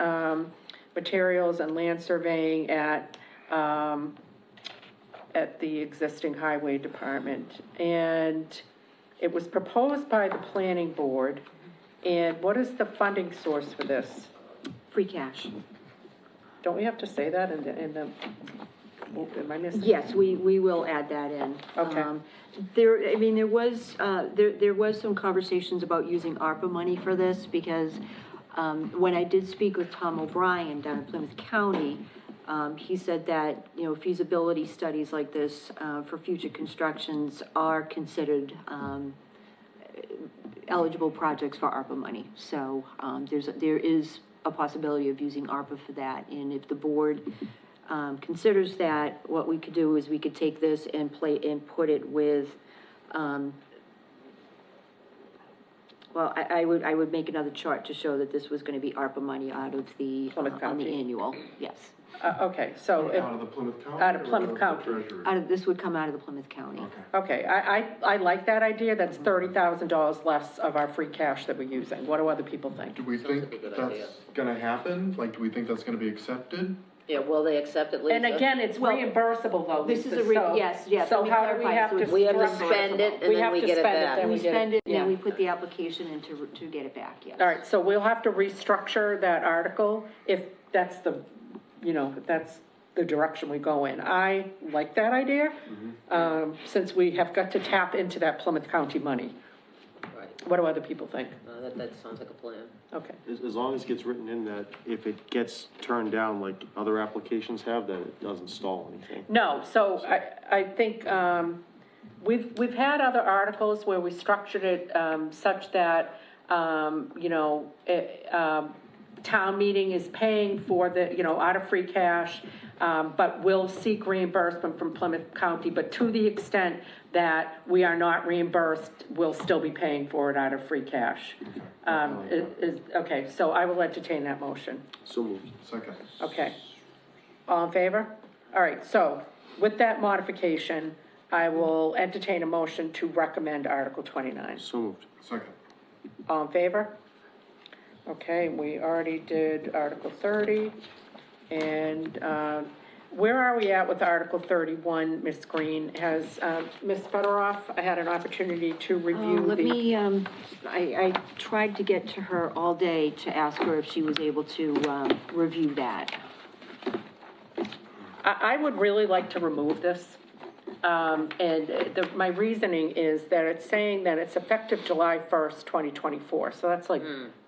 um, materials and land surveying at, um, at the existing highway department. And it was proposed by the planning board. And what is the funding source for this? Free cash. Don't we have to say that in the, in the, oh, am I missing? Yes, we, we will add that in. Okay. Um, There, I mean, there was, uh, there, there was some conversations about using ARPA money for this, because, um, when I did speak with Tom O'Brien down in Plymouth County, um, he said that, you know, feasibility studies like this, uh, for future constructions are considered, um, eligible projects for ARPA money. So, um, there's, there is a possibility of using ARPA for that, and if the board, um, considers that, what we could do is we could take this and play, and put it with, um, well, I, I would, I would make another chart to show that this was gonna be ARPA money out of the, uh, Plymouth on the County. annual, yes. Uh, okay, so if. Out of the Plymouth County? Out of or Plymouth the County. Treasury? Out of, this would come out of the Plymouth County. Okay. Okay, I, I, I like that idea, that's thirty thousand dollars less of our free cash that we're using, what do other people think? Do we think like a good idea. that's gonna happen? Like, do we think that's gonna be accepted? Yeah, will they accept it, Lisa? And again, it's uh, Well, reimbursable though, this Lisa, is a re- so- yes, yes, So let me how do we clarify. have So to? it's We have to structure it? spend it, and We then have we to get it spend back. then We get spend it, and yeah. then we put the application in to, to get it back, yes. All right, so we'll have to restructure that article if that's the, you know, if that's the direction we go in. I like that idea, um, since we have got to tap into that Plymouth County money. Right. What do other people think? No, that, that sounds like a plan. Okay, As, as long as it gets written in that if it gets turned down like other applications have, that it doesn't stall anything. no, so I, I think, um, we've, we've had other articles where we structured it, um, such that, um, you know, it, um, town meeting is paying for the, you know, out of free cash, um, but will seek reimbursement from Plymouth County, but to the extent that we are not reimbursed, we'll still be paying for it out of free cash. Um, is, is, okay, so I will entertain that motion. So moved. Second. Okay. All in favor? All right, so with that modification, I will entertain a motion to recommend Article 29. So moved. Second. All in favor? Okay, we already did Article 30. And uh, where are we at with Article 31, Ms. Green? Has uh, Ms. Federoff had an opportunity to Uh, review the... Let me, um, I, I tried to get to her all day to ask her if she was able to, um, review that. I, I would really like to remove this. Um, and the, my reasoning is that it's saying that it's effective July first, twenty twenty-four, so that's like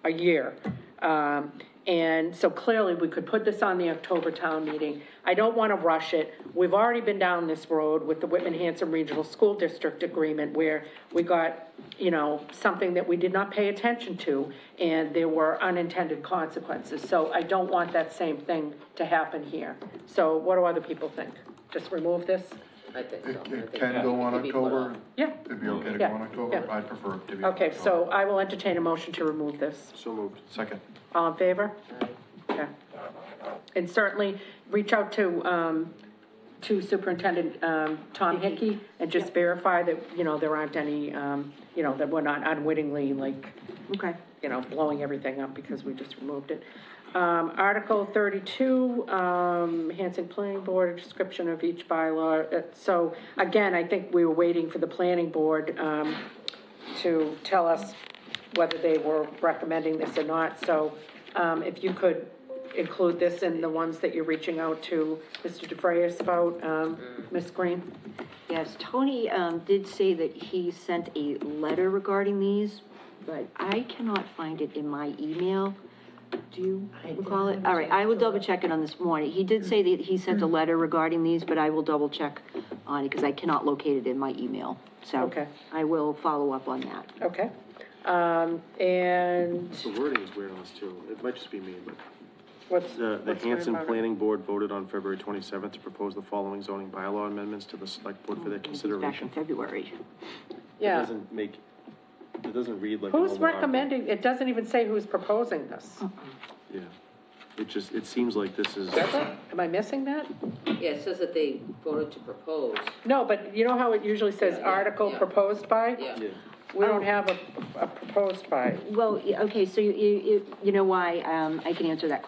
a year. Um, and so clearly, we could put this on the October town meeting. I don't wanna rush it. We've already been down this road with the Whitman Hanson Regional School District Agreement where we got, you know, something that we did not pay attention to, and there were unintended consequences. So I don't want that same thing to happen here. So what do other people think? Just remove this? I think so. It, I it think can go on it could be put October? off. Yeah. It'd be okay to go Yeah, on October? yeah. I prefer it to be. on Okay, October. so I will entertain a motion to remove this. So moved. Second. All in favor? Okay. And certainly, reach out to, um, to Superintendent, um, Tom Hickey and just verify that, you know, there aren't any, um, you know, that we're not unwittingly, like, Okay. you know, blowing everything up because we just removed it. Um, Article thirty-two, um, Hanson Planning Board, description of each bylaw. Uh, So again, I think we were waiting for the planning board, um, to tell us whether they were recommending this or not. So, um, if you could include this in the ones that you're reaching out to Mr. DeFrayis about, um, Ms. Green? Yes, Tony, um, did say that he sent a letter regarding these, but I cannot find it in my email. Do you recall it? All right, I will double check it on this morning. He did say that he sent a letter regarding these, but I will double check on it, because I cannot locate it in my email. So Okay. I will follow up on that. Okay. Um, and The wording is weird on this too. It might just be me, but what's? the, the what's weird Hanson about it? Planning Board voted on February twenty-seventh to propose the following zoning bylaw amendments to the select board for their Back in consideration. February. It Mm-hmm. Yeah. doesn't make, it doesn't read like. a Who's normal article. recommending, it doesn't even say who's proposing this. Uh-huh. Yeah. It just, it seems like this is. Does it? Am I missing that? Yeah, it says that they voted to propose, No, but you know how it usually says Yeah, yeah, article yeah. proposed by? yeah. Oh. Yeah. We don't have a, a proposed by. Well, yeah, okay, so you, you, you know why, um, I can answer that